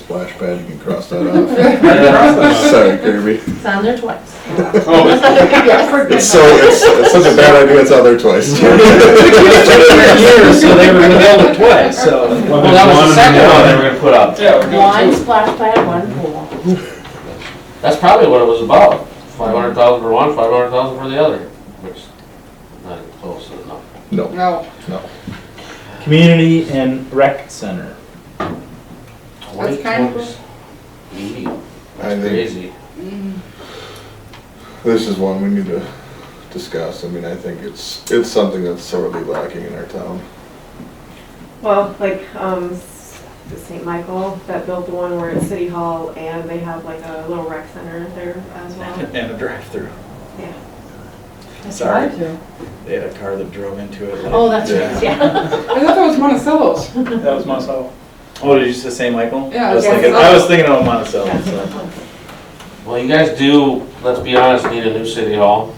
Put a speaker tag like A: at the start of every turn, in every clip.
A: splash pad, you can cross that off.
B: It's
A: Sorry, Kirby.
C: It's on there twice.
B: Oh,
A: It's so, it's, it's such a bad idea, it's out there twice.
B: years, so they were gonna build it twice, so. Well, that was the second one they were gonna put up.
D: Yeah, we're
C: One
D: doing two.
C: splash pad, one pool.
E: That's probably what it was about, five hundred thousand for one, five hundred thousand for the other, which, not close enough.
A: No,
D: No,
B: Community and rec center.
D: That's kind of-
E: Eighty,
A: I
E: that's
A: think-
E: crazy.
A: this is one we need to discuss. I mean, I think it's, it's something that's sorely lacking in our town.
F: Well, like, um, S- St. Michael, that built the one where it's City Hall and they have like a little rec center there as well.
G: And a drive-through.
F: Yeah.
G: Sorry. They had a car that drove into it.
C: Oh, that's right, yeah.
D: I thought that was Monticello's.
B: That was Monticello. Oh, did you say St. Michael?
D: Yeah,
B: I was
D: yeah.
B: thinking, I was thinking of Monticello, so.
E: Well, you guys do, let's be honest, need a new city hall,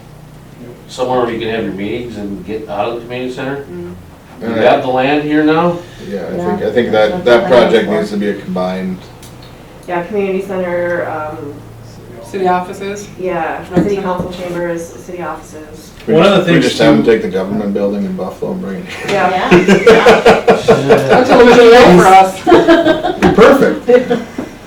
E: somewhere where you can have your meetings and get out of the community center. You
A: Alright.
E: got the land here now?
A: Yeah, I
C: Yeah.
A: think, I think that, that project needs to be a combined,
F: Yeah, community center, um,
D: City offices.
F: yeah, city council chambers, city offices.
A: we
B: One of the
A: just- we
B: things
A: just have them
B: too-
A: take the government building in Buffalo and bring it.
F: Yeah,
D: That's a little low for us.
A: Perfect.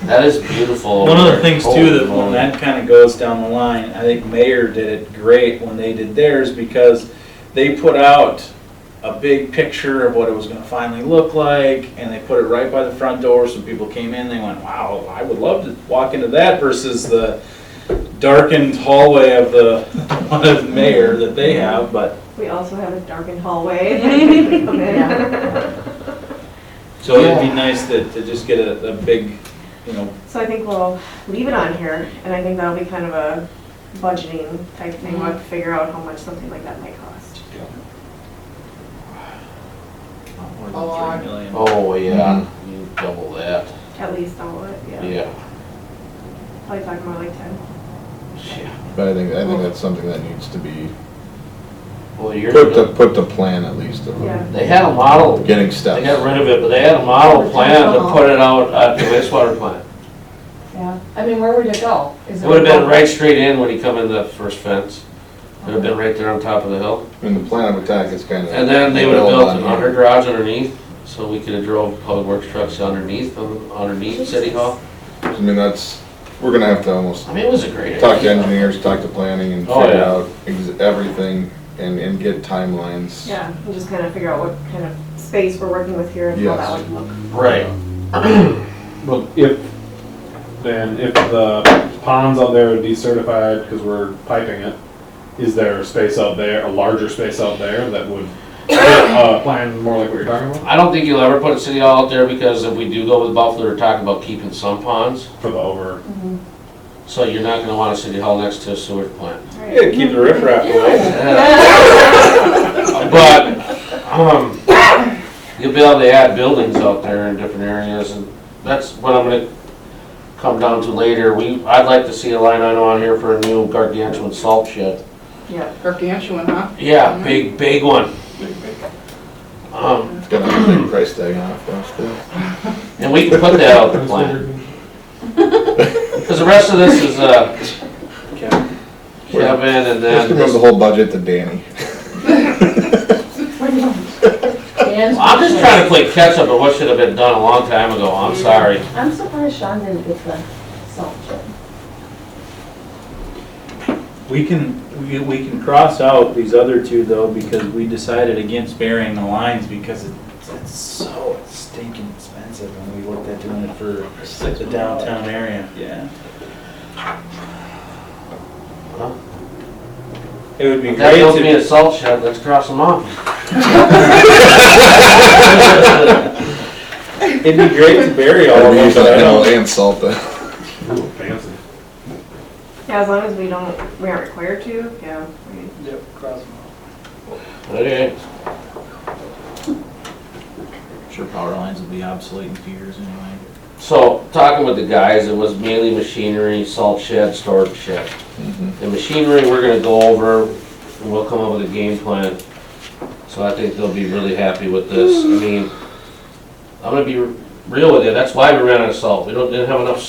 E: That is beautiful.
B: One of
E: over
B: the
E: there.
B: things too, that
E: Holy
B: when
E: moly.
B: that kind of goes down the line, I think Mayor did it great when they did theirs because they put out a big picture of what it was gonna finally look like and they put it right by the front door so people came in, they went, wow, I would love to walk into that versus the darkened hallway of the, of the mayor that they have, but
F: we also have a darkened hallway. that you can come in.
B: so it'd be nice that, to just get a, a big, you know,
F: So I think we'll leave it on here and I think that'll be kind of a budgeting type thing. We'll have to figure out how much something like that might cost.
B: not more than
D: A lot.
B: three million.
E: Oh, yeah,
B: Mm-hmm.
E: you double that,
F: At least all of it, yeah.
E: yeah.
F: Probably talking more like ten.
E: Yeah.
A: But I think, I think that's something that needs to be,
E: Well, you're,
A: put the, put the plan at least of
F: Yeah.
E: they had a model
A: getting
E: They got
A: steps.
E: rid of it, but they had a model plan to put it out at the wastewater plant.
C: Yeah, I mean, where would it go?
E: It would have been right straight in when he come in that first fence. It would have been right there on top of the hill.
A: And the plan of attack is kind of.
E: And then they would have built an under garage underneath, so we could have drove public works trucks underneath, um, underneath City Hall.
A: I mean, that's, we're gonna have to almost
E: I mean, it was a great idea.
A: talk to engineers, talk to planning and
E: Oh,
A: figure
E: yeah.
A: out ex- everything and, and get timelines.
F: Yeah, and just kind of figure out what kind of space we're working with here and how that
A: Yes.
F: would look.
E: Right.
H: Well, if, then if the ponds out there are decertified because we're piping it, is there a space out there, a larger space out there that would, uh, plan more like what you're talking about?
E: I don't think you'll ever put a City Hall out there because if we do go with Buffalo, they're talking about keeping some ponds.
H: For the over,
E: So you're not gonna want a City Hall next to a sewage plant.
B: Yeah, keep the riffraff away.
E: But, um, you'll be able to add buildings out there in different areas, and that's what I'm gonna come down to later. We, I'd like to see a line item on here for a new gargantuan salt shed.
F: Yeah,
D: Gargantuan, huh?
E: Yeah, big, big one. Um,
A: It's gonna have a big price tag on it for us too.
E: and we can put that out the plan, because the rest of this is, uh, Kevin and
A: Just remove the
E: then,
A: whole budget to Danny.
E: I'm just trying to play catch up on what should have been done a long time ago, I'm sorry.
C: I'm surprised Sean didn't get the salt shed.
B: We can, we, we can cross out these other two though, because we decided against burying the lines because it's, it's so stinking expensive and we looked at doing it for the downtown area, yeah.
E: Mm-hmm.
B: It would be
E: If that
B: great
E: builds me
B: to,
E: a salt shed, let's cross them off.
B: it'd be great to bury all
A: Or
B: of
A: we use
B: them.
A: that
B: I
A: animal
B: don't-
A: and salt it.
H: fancy.
F: yeah, as long as we don't, we aren't required to, yeah. we-
E: Okay.
B: Sure, power lines will be obsolete in a few years anyway.
E: So, talking with the guys, it was mainly machinery, salt shed, storage shed. The machinery, we're gonna go over, and we'll come up with a game plan. So I think they'll be really happy with this. I mean, I'm gonna be real with you, that's why we ran out of salt, we don't, didn't have enough